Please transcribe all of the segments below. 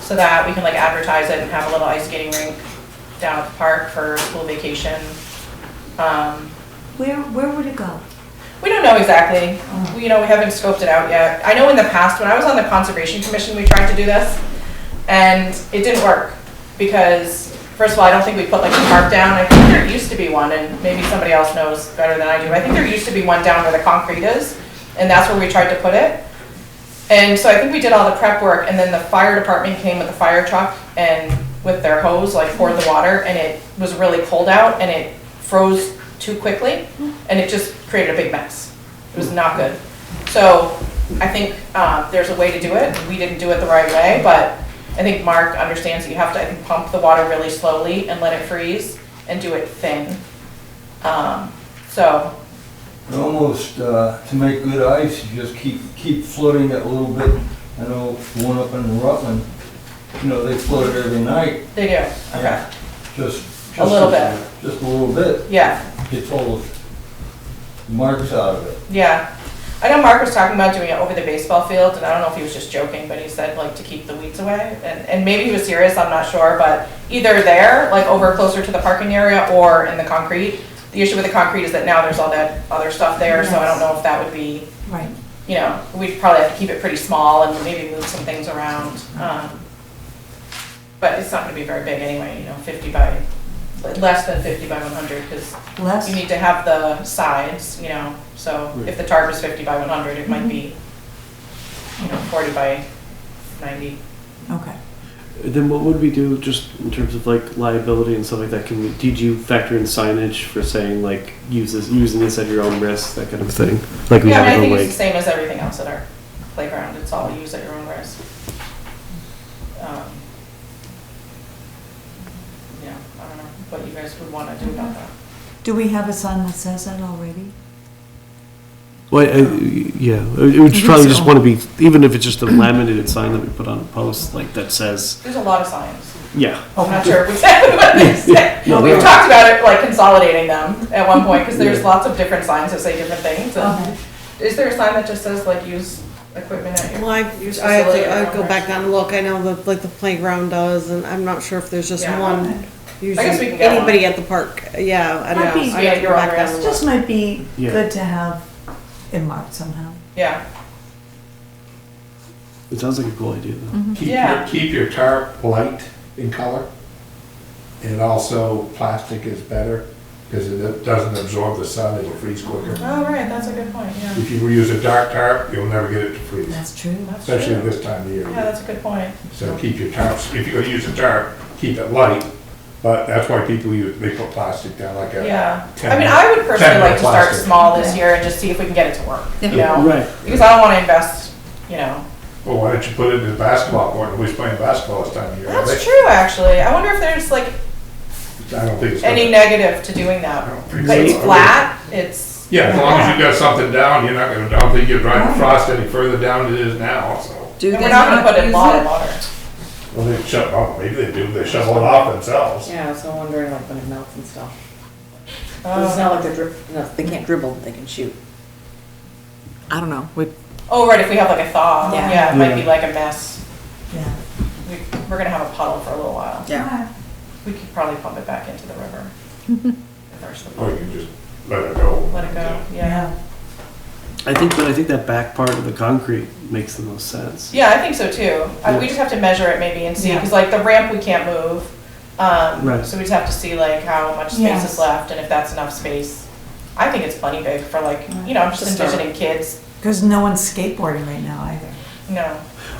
So that we can like advertise it and have a little ice skating rink down at the park for school vacation. Um, Where, where would it go? We don't know exactly. We, you know, we haven't scoped it out yet. I know in the past, when I was on the Conservation Commission, we tried to do this, and it didn't work. Because, first of all, I don't think we put like a park down. I think there used to be one, and maybe somebody else knows better than I do. I think there used to be one down where the concrete is, and that's where we tried to put it. And so I think we did all the prep work, and then the fire department came with a fire truck and with their hose, like poured the water, and it was really cold out, and it froze too quickly, and it just created a big mess. It was not good. So I think uh, there's a way to do it. We didn't do it the right way, but I think Mark understands that you have to, I think, pump the water really slowly and let it freeze and do it thin. Um, So, Almost, uh, to make good ice, you just keep, keep flooding it a little bit. I know one up in Rutland, you know, they flood it every night, they do, okay, Yeah. just. A little just- Just a little bit, yeah. gets all the marks out of it. Yeah. I know Mark was talking about doing it over the baseball field, and I don't know if he was just joking, but he said like to keep the weeds away. And, and maybe he was serious, I'm not sure, but either there, like over closer to the parking area, or in the concrete. The issue with the concrete is that now there's all that other stuff there, so I don't know if that would be, Right. you know, we'd probably have to keep it pretty small and maybe move some things around. Um, But it's not gonna be very big anyway, you know, fifty by, less than fifty by one hundred, because you Less? need to have the sides, you know, so if the tarp is fifty by one hundred, it might be, you know, forty by ninety. Okay. Then what would we do just in terms of like liability and stuff like that? Can we, did you factor in signage for saying like use this, using this at your own risk, that kind of thing? Like we Yeah, I have mean, I think it it's the like, same as everything else at our playground, it's all use at your own risk. Um, Yeah, I don't know what you guys would wanna do about that. Do we have a sign that says that already? well, I- yeah, it would think probably just so. want to be, even if it's just a laminated sign that we put on a post, like that says, There's a lot of signs, yeah. I'm not sure exactly what they say. No, We've they're- talked about it, like consolidating them at one point, cause there's lots of different signs that say different things, and Is there a sign that just says like use equipment at Well, your? I, I have to, I go back down and look, I know that, like, the playground does, and I'm not sure if there's just Yeah. one. guess we can Usually, get one. anybody at the park, yeah, I don't Might be- know. I have to Yeah, go you're back down on and It look. just might be Yeah. good to have it marked somehow. Yeah, It sounds like a cool idea though. Keep Yeah. your, keep your tarp light in color. And also, plastic is better because it doesn't absorb the sun, it'll freeze quicker. oh, right, that's a good point, yeah. If you use a dark tarp, you'll never get it to freeze, That's true. That's especially true. this time of Yeah, year. that's a good point. So keep your tarps, if you're gonna use a tarp, keep it light. But that's why people use, they put plastic down like a, Yeah, I Ten- mean, I would personally ten like to start plastic. small this year and just see if we can get it to work, you Yeah, know? Right, Because I don't wanna invest, you know, well, Oh, why don't you put it in the basketball court? Nobody's playing basketball this time of year. are that's they? true, actually. I wonder if there's like I don't think it's. any negative to doing I that. don't think But so. it's flat, it's. Yeah, as long as you got something down, you're not gonna, I don't think you're driving frost any further down than it is now, so. Do And they we're not gonna put it in use a lot of it? water. Well, they shut, oh, maybe they do, they shovel it off themselves. Yeah, so I'm wondering like when it melts and stuff. It's Oh. not like they're drip, no, they can't dribble, but they can shoot. I don't know, we, Oh, right, if we have like a thaw, Yeah. yeah, it might be Yeah. like a mess. Yeah. We, we're gonna have a puddle for a little while. yeah. We could probably pump it back into the river. If there's the- Or you can just let it go. Let it go, yeah. Yeah. I think, but I think that back part of the concrete makes the most sense. Yeah, I think so too. Uh, We just have to measure it maybe and see, because like the ramp we can't move. Um, Right. so we just have to see like how much space is Yes. left and if that's enough space. I think it's plenty big for like, you know, I'm To just start. envisioning kids, Because no one's skateboarding right now either. no.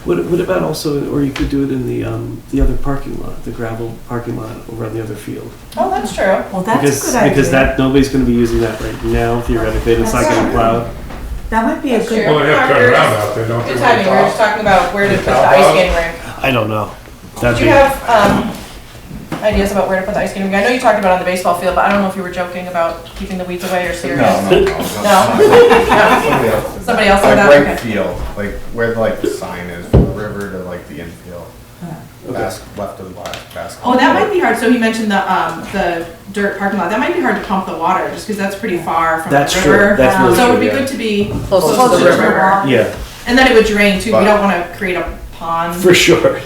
What, what about also, or you could do it in the, um, the other parking lot, the gravel parking lot over on the other field. Oh, that's true. Well, that's a because, good idea. Because that, nobody's gonna be using that right now theoretically, and it's not gonna plow. That might be a That's good, true. Well, they have to turn around out there, don't they? Good timing, we were just talking about where to put the ice skating rink. I don't know. Do That'd you be, have, um, ideas about where to put the ice skating rink? I know you talked about it on the baseball field, but I don't know if you were joking about keeping the weeds away or serious. No, no, No? Somebody else. Somebody else said Like that, right okay. field, like where like the sign is, from the river to like the infield. Bas- Left of the last basketball. Oh, that might be hard, so he mentioned the, um, the dirt parking lot, that might be hard to pump the water, just because that's pretty far from the That's true. river. That's really So it would true, be yeah. good to be Close close to the river, yeah, and then it would drain too, we But- don't wanna create a pond. for sure.